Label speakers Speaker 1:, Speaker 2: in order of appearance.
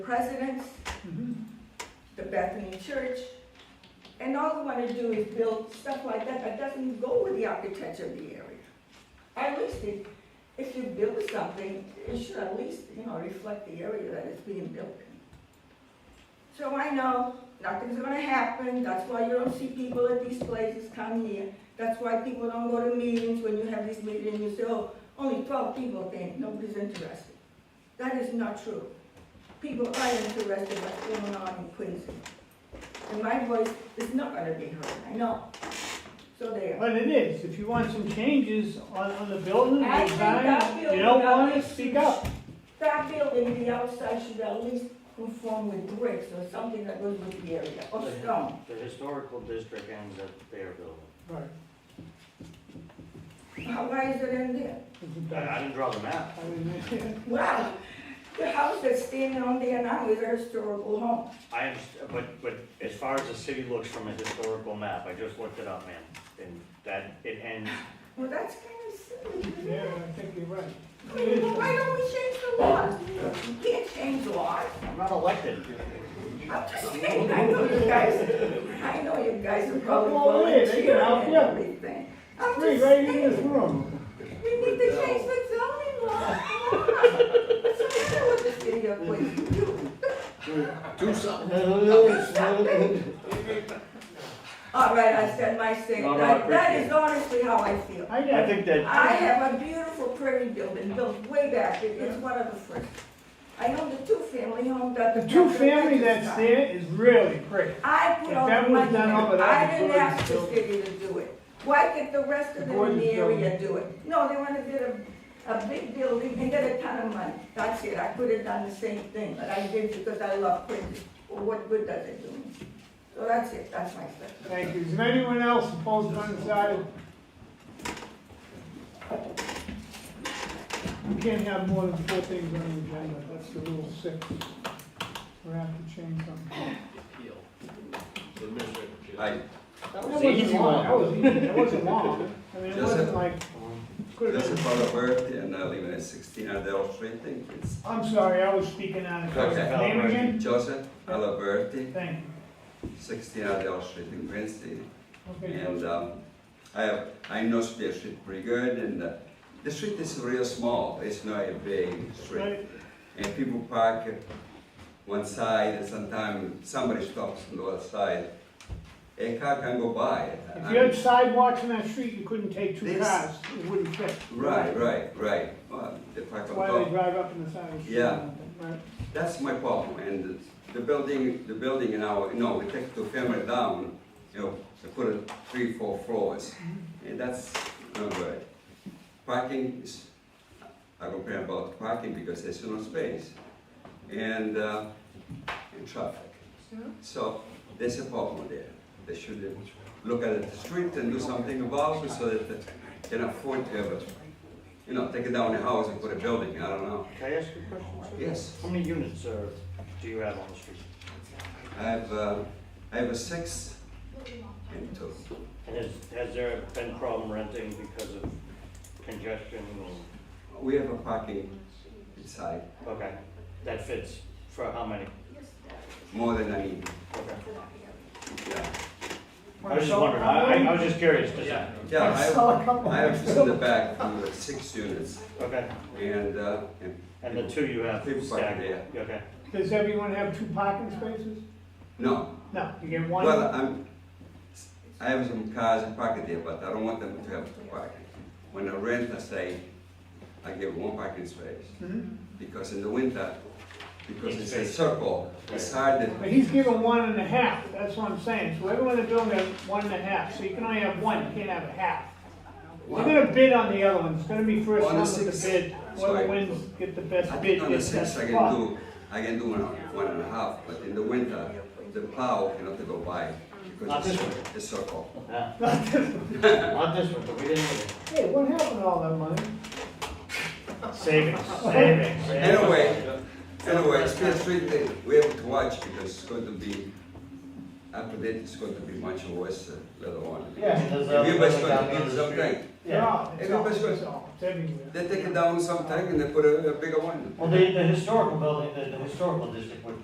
Speaker 1: presidents, the Bethany Church, and all they want to do is build stuff like that that doesn't go with the architecture of the area. At least if, if you build something, it should at least, you know, reflect the area that it's being built in. So I know nothing's gonna happen, that's why you don't see people at these places come here. That's why people don't go to meetings, when you have this meeting, you say, oh, only twelve people came, nobody's interested. That is not true people are interested in what's going on in Quincy. And my voice is not gonna be heard, I know. So there.
Speaker 2: But it is, if you want some changes on, on the building,
Speaker 1: I
Speaker 2: the
Speaker 1: think that
Speaker 2: design,
Speaker 1: building
Speaker 2: you don't
Speaker 1: at
Speaker 2: wanna
Speaker 1: least
Speaker 2: speak
Speaker 1: should-
Speaker 2: up.
Speaker 1: That building, the outside should at least conform with bricks or something that goes with the area, or stone.
Speaker 3: The historical district ends at their building.
Speaker 2: Right.
Speaker 1: How- Why is it in there?
Speaker 3: I I didn't draw the map.
Speaker 2: I mean,
Speaker 1: Wow, the house that's standing on there now is a historical home.
Speaker 3: I am, but, but as far as the city looks from a historical map, I just looked it up, man. And that, it ends,
Speaker 1: Well, that's kinda silly, isn't
Speaker 2: Yeah,
Speaker 1: it?
Speaker 2: I think you're right.
Speaker 1: I mean, well, why don't we change the laws? You can't change laws.
Speaker 3: I'm not elected.
Speaker 1: I'm just kidding, I know you guys, I know you guys are probably
Speaker 2: Come on in,
Speaker 1: volunteering
Speaker 2: they can help
Speaker 1: and
Speaker 2: you.
Speaker 1: everything. I'm
Speaker 2: Three,
Speaker 1: just
Speaker 2: right in this
Speaker 1: saying,
Speaker 2: room.
Speaker 1: we need to change the zoning law. Come on. What's the matter with this video, please? You-
Speaker 4: Do something.
Speaker 1: All right, I said my thing,
Speaker 3: No, no, I
Speaker 1: that, that
Speaker 3: appreciate
Speaker 1: is honestly how I feel.
Speaker 2: I
Speaker 3: I
Speaker 2: got it.
Speaker 3: think that,
Speaker 1: I have a beautiful prairie building built way back, It- it's one of the first. I own the two-family home that the.
Speaker 2: The two-family that's
Speaker 1: there.
Speaker 2: there is really great.
Speaker 1: I put
Speaker 2: If
Speaker 1: all
Speaker 2: that
Speaker 1: the
Speaker 2: was
Speaker 1: money in,
Speaker 2: done over there,
Speaker 1: I
Speaker 2: the
Speaker 1: didn't
Speaker 2: Gordon's
Speaker 1: ask the
Speaker 2: building.
Speaker 1: city to do it. Why did the rest of them in
Speaker 2: Gordon's
Speaker 1: the area
Speaker 2: building.
Speaker 1: do it? No, they wanna build a, a big building and get a ton of money, that's it, I could have done the same thing, but I didn't because I love Quincy. Well, What good does it do me? So that's it, that's my stuff.
Speaker 2: Thank you. Is there anyone else opposed or undecided? You can't have more than four things on the agenda, that's the rule six. We're gonna have to change something.
Speaker 4: I,
Speaker 2: That
Speaker 4: was
Speaker 2: wasn't
Speaker 4: an easy
Speaker 2: long.
Speaker 4: one.
Speaker 2: That was easy, that wasn't long. I mean, it
Speaker 4: Just
Speaker 2: wasn't
Speaker 4: a-
Speaker 2: like, could have
Speaker 4: just
Speaker 2: been.
Speaker 4: about a birthday and I live at sixteen Adele Street, think it's
Speaker 2: I'm sorry, I was speaking out of turn.
Speaker 4: Okay.
Speaker 2: Name again?
Speaker 4: Joseph Alaberti,
Speaker 2: Thank you.
Speaker 4: sixteen Adele Street in Quincy.
Speaker 2: Okay,
Speaker 4: And um, I have, I know the street pretty good and uh, the street is real small, it's not a big street.
Speaker 2: Right.
Speaker 4: And people park at one side and sometimes somebody stops on the other side. A car can go by.
Speaker 2: If
Speaker 4: I
Speaker 2: you had
Speaker 4: mean,
Speaker 2: sidewalks in that street, you couldn't take two
Speaker 4: This-
Speaker 2: cars, it wouldn't fit.
Speaker 4: Right, right, right. Well, they park
Speaker 2: That's
Speaker 4: on
Speaker 2: why
Speaker 4: top.
Speaker 2: they drive up in the side of the street.
Speaker 4: Yeah.
Speaker 2: Right.
Speaker 4: That's my problem, and the building, the building now, you know, we take two family down, you know, we put it three, four floors, and that's not good. Parking is, I complain about parking because there's no space, and, uh, and traffic. So, there's a problem there, they should look at the street and do something about it so that they can afford to have, a, you know, take it down the house and put a building, I don't know,
Speaker 3: can I ask you a question? sir?
Speaker 4: yes.
Speaker 3: How many units are, do you have on the street?
Speaker 4: I have, uh, I have a six and two.
Speaker 3: And has, has there been problem renting because of congestion or,
Speaker 4: We have a parking inside,
Speaker 3: okay, that fits for how many?
Speaker 4: more than I need,
Speaker 3: Okay.
Speaker 4: yeah.
Speaker 3: I was just wondering, I, I- I was just curious, just,
Speaker 4: Yeah, I have,
Speaker 2: Saw a couple.
Speaker 4: I have in the back, uh, six units,
Speaker 3: okay.
Speaker 4: and, uh, and,
Speaker 3: And the two you have
Speaker 4: People park
Speaker 3: staggered,
Speaker 4: there.
Speaker 3: okay.
Speaker 2: Does everyone have two parking spaces?
Speaker 4: no,
Speaker 2: No, you get one.
Speaker 4: well, uh, I'm, I have some cars parked there, but I don't want them to have to park. When I rent, I say, I give one parking space,
Speaker 2: Mhm.
Speaker 4: because in the winter, because it's a circle, it's hard to
Speaker 2: But he's given one and a half, that's what I'm saying, so everyone in the building has one and a half, so you can only have one, you can't have a half. We're gonna bid on the other one, it's gonna be first one
Speaker 4: On the
Speaker 2: with
Speaker 4: oh six.
Speaker 2: the bid,
Speaker 4: Sorry.
Speaker 2: whoever wins, get the
Speaker 4: I
Speaker 2: best bid,
Speaker 4: think on the
Speaker 2: gets that
Speaker 4: six, I
Speaker 2: spot.
Speaker 4: can do, I can do one, one and a half, but in the winter, the plow cannot go by
Speaker 3: Not
Speaker 4: because
Speaker 3: this
Speaker 4: it's,
Speaker 3: one.
Speaker 4: it's circle.
Speaker 3: Yeah. Not this one, but we didn't need it.
Speaker 2: Hey, what happened to all that money?
Speaker 3: Savings, savings, savings.
Speaker 4: Anyway, anyway, Spear Street, eh, we have to watch because it's going to be after that, it's going to be much worse uh, later on.
Speaker 3: Yeah, I mean, there's a
Speaker 4: Everybody's
Speaker 3: building
Speaker 4: going
Speaker 3: down the
Speaker 4: to build
Speaker 3: end of the
Speaker 4: something.
Speaker 3: street. Yeah.
Speaker 2: It's all, it's all, it's everywhere.
Speaker 4: They take it down sometime and they put a, a bigger one.
Speaker 3: Well, the, the historical building, the, the historical district would